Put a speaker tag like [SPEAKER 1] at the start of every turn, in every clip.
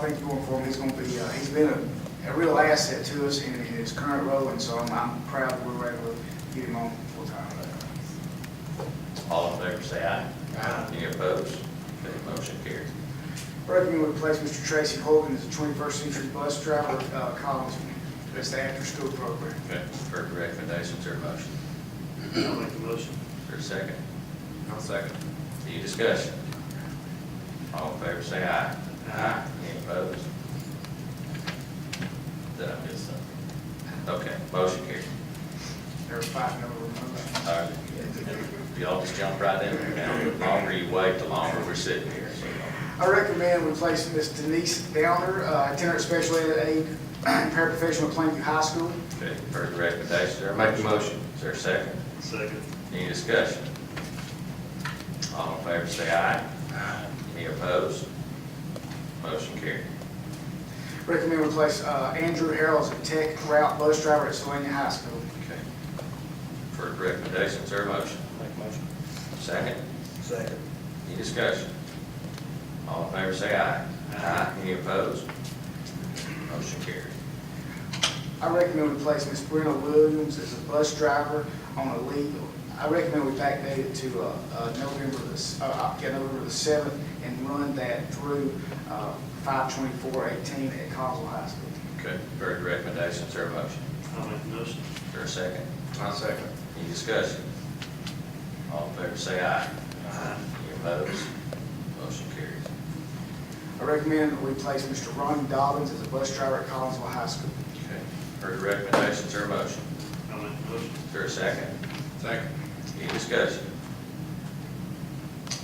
[SPEAKER 1] thank you all for him. He's going to be, uh, he's been a, a real asset to us in, in his current role, and so I'm, I'm proud that we were able to get him on full-time.
[SPEAKER 2] All in favor, say aye.
[SPEAKER 1] Aye.
[SPEAKER 2] Any opposed? Okay, motion carries.
[SPEAKER 1] Recommend we place Mr. Tracy Hogan as a 21st century bus driver at uh, Collins. That's the after-school program.
[SPEAKER 2] Okay, heard the recommendations, there a motion?
[SPEAKER 3] I'll make the motion.
[SPEAKER 2] Is there a second? I'll second. Any discussion? All in favor, say aye.
[SPEAKER 3] Aye.
[SPEAKER 2] Any opposed? Did I miss something? Okay, motion carries.
[SPEAKER 1] There are five number one.
[SPEAKER 2] All right. Y'all just jump right in there now. The longer you wait, the longer we're sitting here, so.
[SPEAKER 1] I recommend we place Ms. Denise Downer, uh, itinerant special ed aide, paraprofessional at Plainview High School.
[SPEAKER 2] Okay, heard the recommendations, there make a motion. Is there a second?
[SPEAKER 3] Second.
[SPEAKER 2] Any discussion? All in favor, say aye. Aye. Any opposed? Motion carried.
[SPEAKER 1] Recommend we place uh, Andrew Harrell as a tech route bus driver at Sylvania High School.
[SPEAKER 2] Okay. For recommendations, there a motion?
[SPEAKER 3] Make motion.
[SPEAKER 2] Second,
[SPEAKER 3] Second.
[SPEAKER 2] any discussion? All in favor, say aye. Aye. Any opposed? Motion carried.
[SPEAKER 1] I recommend we place Ms. Brenna Williams as a bus driver on a leave. I recommend we backdate it to uh, uh, November, the s- uh, uh, yeah, November the 7th and run that through uh, 52418 at Collinsville High School.
[SPEAKER 2] Okay, heard the recommendations, there a motion?
[SPEAKER 3] I'll make the motion.
[SPEAKER 2] Is there a second?
[SPEAKER 4] I'll second.
[SPEAKER 2] Any discussion? All in favor, say aye.
[SPEAKER 3] Aye.
[SPEAKER 2] Any opposed? Motion carries.
[SPEAKER 1] I recommend that we place Mr. Ronnie Dobbins as a bus driver at Collinsville High School.
[SPEAKER 2] Okay, heard the recommendations, there a motion?
[SPEAKER 3] I'll make the motion.
[SPEAKER 2] Is there a second?
[SPEAKER 4] Second.
[SPEAKER 2] Any discussion?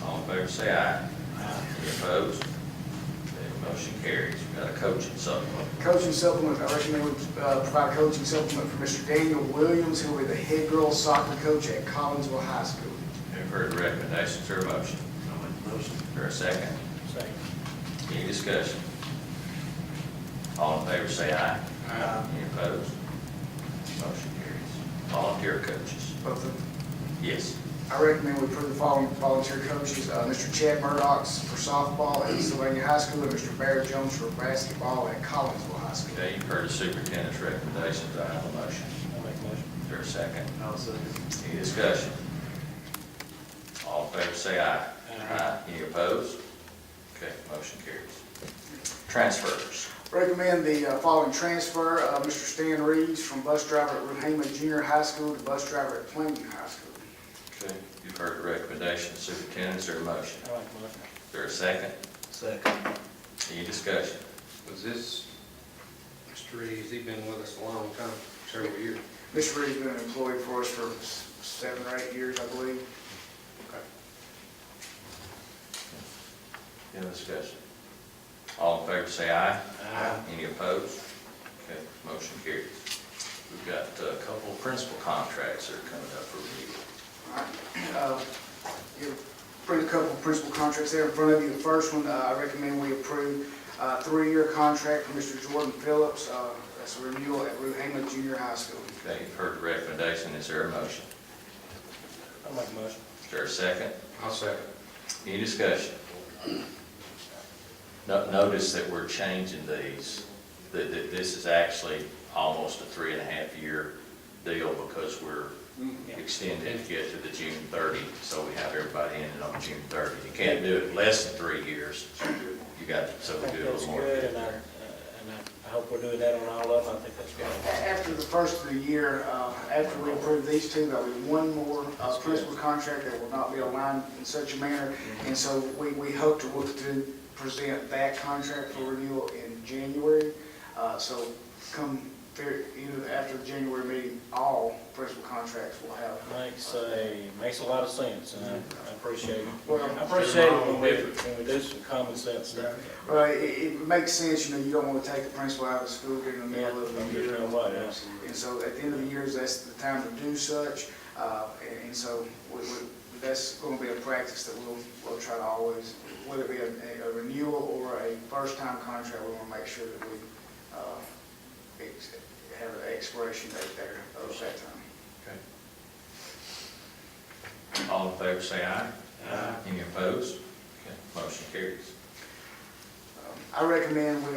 [SPEAKER 2] All in favor, say aye. Aye. Any opposed? Okay, motion carries. We got a coaching supplement.
[SPEAKER 1] Coaching supplement, I recommend we uh, provide a coaching supplement for Mr. Daniel Williams, who will be the head girls soccer coach at Collinsville High School.
[SPEAKER 2] You've heard the recommendations, there a motion?
[SPEAKER 3] I'll make the motion.
[SPEAKER 2] Is there a second? Second. Any discussion? All in favor, say aye.
[SPEAKER 4] Aye.
[SPEAKER 2] Any opposed? Motion carries. Volunteer coaches?
[SPEAKER 1] Both of
[SPEAKER 2] Yes.
[SPEAKER 1] I recommend we approve the following volunteer coaches, uh, Mr. Chad Murdock for softball at Sylvania High School, and Mr. Barrett Jones for basketball at Collinsville High School.
[SPEAKER 2] Okay, you've heard the superintendent's recommendations, do I have a motion?
[SPEAKER 3] I'll make the motion.
[SPEAKER 2] Is there a second?
[SPEAKER 3] I'll second.
[SPEAKER 2] Any discussion? All in favor, say aye.
[SPEAKER 3] Aye.
[SPEAKER 2] Any opposed? Okay, motion carries. Transfers.
[SPEAKER 1] Recommend the uh, following transfer, uh, Mr. Stan Reeves from bus driver at Ruhama Junior High School to bus driver at Plainview High School.
[SPEAKER 2] Okay. You've heard the recommendation, superintendent, is there a motion?
[SPEAKER 3] I'll make the motion.
[SPEAKER 2] Is there a second?
[SPEAKER 3] Second.
[SPEAKER 2] Any discussion?
[SPEAKER 4] Was this, Mr. Reeves, he been with us a long time, several years.
[SPEAKER 1] Mr. Reeves been an employee for us for s- seven or eight years, I believe.
[SPEAKER 2] Any discussion? All in favor, say aye.
[SPEAKER 3] Aye.
[SPEAKER 2] Any opposed? Okay, motion carries. We've got a couple of principal contracts that are coming up for review.
[SPEAKER 1] Alright, uh, you Bring a couple of principal contracts there in front of you. The first one, uh, I recommend we approve a three-year contract for Mr. Jordan Phillips. uh, That's a renewal at Ruhama Junior High School.
[SPEAKER 2] Okay, you've heard the recommendation, is there a motion?
[SPEAKER 3] I'll make the motion.
[SPEAKER 2] Is there a second?
[SPEAKER 4] I'll second.
[SPEAKER 2] Any discussion? No- Notice that we're changing these, that, that this is actually almost a three and a half year deal because we're
[SPEAKER 5] Mm,
[SPEAKER 2] extending it to get to the June thirty, so we have everybody in it on June thirty. You can't do it less than three years, you got, so we
[SPEAKER 5] think
[SPEAKER 2] do a
[SPEAKER 5] that's
[SPEAKER 2] little more.
[SPEAKER 5] good, and I, uh, and I- I hope we're doing that on all of them, I think that's
[SPEAKER 1] A-
[SPEAKER 5] great.
[SPEAKER 1] After the first of the year, uh, after we approve these two, there'll be one more uh, principal contract that will not be aligned in such a manner. And so we, we hope to look to present that contract for renewal in January. Uh, So come, Fe- either after the January meeting, all principal contracts will have
[SPEAKER 5] Makes a, makes a lot of sense, and I- I appreciate it.
[SPEAKER 1] Well-
[SPEAKER 5] I appreciate it when we, when we do some common sense stuff.
[SPEAKER 1] Well, it, it makes sense, you know, you don't want to take the principal out of school during the
[SPEAKER 5] Yeah,
[SPEAKER 1] middle of
[SPEAKER 5] I'm
[SPEAKER 1] the
[SPEAKER 5] just
[SPEAKER 1] year.
[SPEAKER 5] gonna wait, absolutely.
[SPEAKER 1] And so at the end of the years, that's the time to do such, uh, and, and so we, we, that's gonna be a practice that we'll, we'll try to always, whether it be a, a renewal or a first-time contract, we wanna make sure that we, uh, ex- have an expiration date there of that time.
[SPEAKER 2] All in favor, say aye.
[SPEAKER 3] Aye.
[SPEAKER 2] Any opposed? Okay, Motion carries.
[SPEAKER 1] Um, I recommend we